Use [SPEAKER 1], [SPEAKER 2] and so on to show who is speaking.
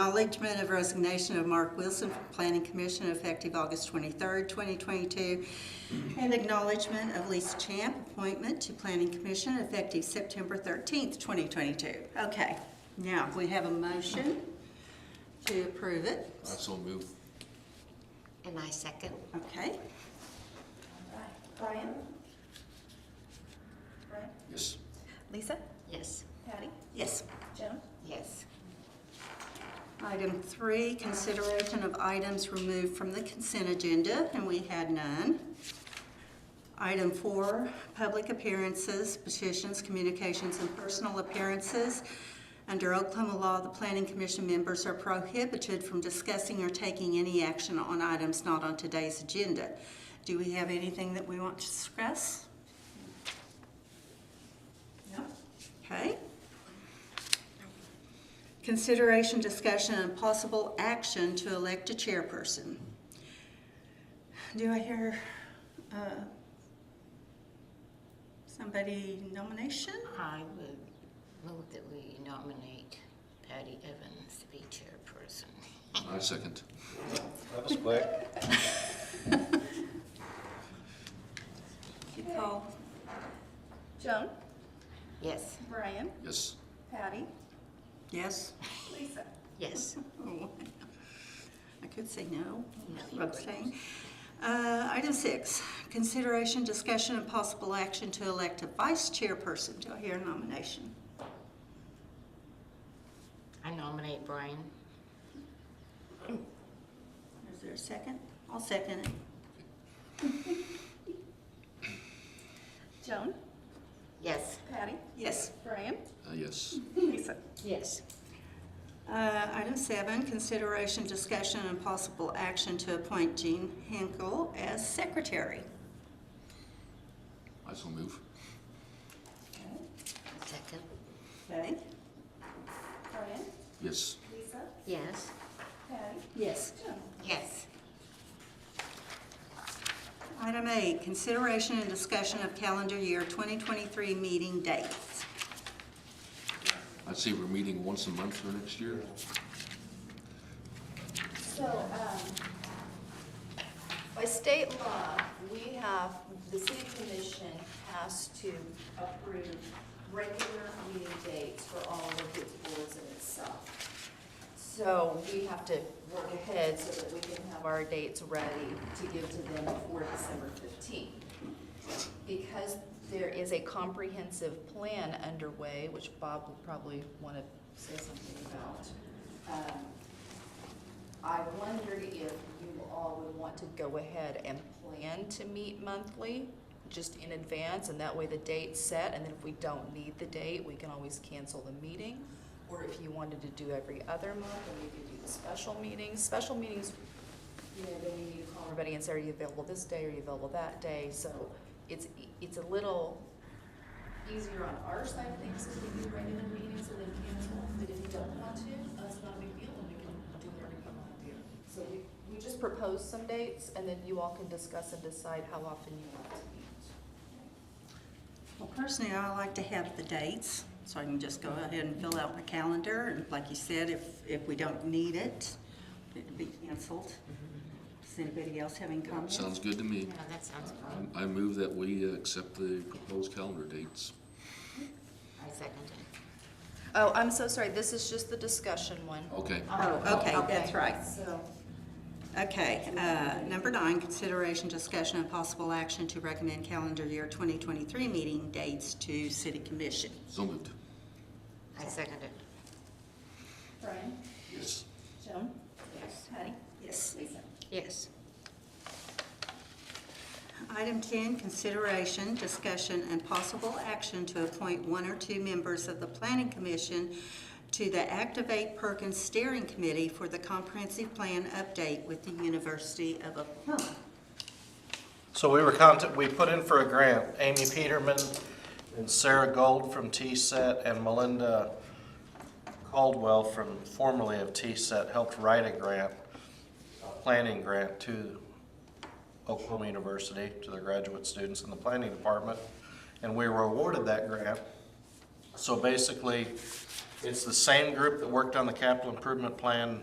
[SPEAKER 1] acknowledgement of resignation of Mark Wilson from Planning Commission effective August 23rd, 2022, and acknowledgement of Lisa Champ appointment to Planning Commission effective September 13th, 2022. Okay, now we have a motion to approve it.
[SPEAKER 2] I so move.
[SPEAKER 3] And I second.
[SPEAKER 1] Okay,
[SPEAKER 4] Brian? Brian?
[SPEAKER 2] Yes.
[SPEAKER 4] Lisa?
[SPEAKER 3] Yes.
[SPEAKER 4] Patty?
[SPEAKER 1] yes.
[SPEAKER 4] Joan?
[SPEAKER 3] Yes.
[SPEAKER 1] Item three, consideration of items removed from the consent agenda, and we had none. Item four, public appearances, petitions, communications, and personal appearances. Under Oklahoma law, the planning commission members are prohibited from discussing or taking any action on items not on today's agenda. Do we have anything that we want to discuss? No. Okay. Consideration, discussion, and possible action to elect a chairperson. Do I hear uh, somebody nomination?
[SPEAKER 3] I would move that we nominate Patty Evans to be chairperson.
[SPEAKER 2] I second.
[SPEAKER 5] That was quick.
[SPEAKER 1] You call?
[SPEAKER 4] Joan?
[SPEAKER 3] Yes.
[SPEAKER 4] Brian?
[SPEAKER 2] Yes.
[SPEAKER 4] Patty?
[SPEAKER 1] Yes.
[SPEAKER 4] Lisa?
[SPEAKER 3] Yes.
[SPEAKER 1] Oh, I could say no.
[SPEAKER 3] No, you couldn't.
[SPEAKER 1] Abstain. Uh, Item six, consideration, discussion, and possible action to elect a vice chairperson. Do I hear a nomination?
[SPEAKER 3] I nominate Brian.
[SPEAKER 1] Is there a second? I'll second it.
[SPEAKER 4] Joan?
[SPEAKER 3] Yes.
[SPEAKER 4] Patty?
[SPEAKER 1] Yes.
[SPEAKER 4] Brian?
[SPEAKER 2] Uh, yes.
[SPEAKER 4] Lisa?
[SPEAKER 3] Yes.
[SPEAKER 1] Uh, Item seven, consideration, discussion, and possible action to appoint Jean Hinkle as secretary.
[SPEAKER 2] I so move.
[SPEAKER 3] Second.
[SPEAKER 1] Okay?
[SPEAKER 4] Brian?
[SPEAKER 2] Yes.
[SPEAKER 4] Lisa?
[SPEAKER 3] Yes.
[SPEAKER 4] Patty?
[SPEAKER 1] Yes.
[SPEAKER 4] Joan?
[SPEAKER 3] Yes.
[SPEAKER 1] Item eight, consideration and discussion of calendar year 2023 meeting dates.
[SPEAKER 2] I see we're meeting once a month for next year.
[SPEAKER 6] So, um, by state law, we have, the city commission has to approve regular meeting dates for all of its boards and itself. So we have to work ahead so that we can have our dates ready to give to them before December fifteenth because there is a comprehensive plan underway, which Bob will probably want to say something about, um, I wondered if you all would want to go ahead and plan to meet monthly, just in advance, and that way the date's set, and then if we don't need the date, we can always cancel the meeting. Or if you wanted to do every other month, then we could do the special meetings. Special meetings you know, then you need to call everybody and say, are you available this day, are you available that day? So it's, it's a little easier on our side of things because we do regular meetings and then cancel. But if you don't want to, that's not a big deal and we can do whatever you want to do. So we, we just propose some dates and then you all can discuss and decide how often you want to meet.
[SPEAKER 1] Well, personally, I like to have the dates, so I can just go ahead and fill out my calendar, and like you said, if, if we don't need it, it'd be canceled. Does anybody else have any comments?
[SPEAKER 2] Sounds good to me.
[SPEAKER 3] No, that sounds fine.
[SPEAKER 2] I I move that we uh, accept the proposed calendar dates.
[SPEAKER 3] I second it.
[SPEAKER 6] Oh, I'm so sorry, this is just the discussion one.
[SPEAKER 2] Okay.
[SPEAKER 1] Oh, okay, that's
[SPEAKER 6] Okay.
[SPEAKER 1] right.
[SPEAKER 6] So,
[SPEAKER 1] Okay, uh, number nine, consideration, discussion, and possible action to recommend calendar year 2023 meeting dates to city commission.
[SPEAKER 2] So moved.
[SPEAKER 3] I second it.
[SPEAKER 4] Brian?
[SPEAKER 2] Yes.
[SPEAKER 4] Joan?
[SPEAKER 3] Yes.
[SPEAKER 4] Patty?
[SPEAKER 1] Yes.
[SPEAKER 4] Lisa?
[SPEAKER 3] Yes.
[SPEAKER 1] Item 10, consideration, discussion, and possible action to appoint one or two members of the planning commission to the Activate Perkins Steering Committee for the Comprehensive Plan Update with the University of Oklahoma.
[SPEAKER 5] So we were content, we put in for a grant, Amy Peterman and Sarah Gold from T-Set and Melinda Caldwell from formerly of T-Set helped write a grant, a planning grant to Oklahoma University, to their graduate students in the planning department. And we were awarded that grant. So basically, It's the same group that worked on the capital improvement plan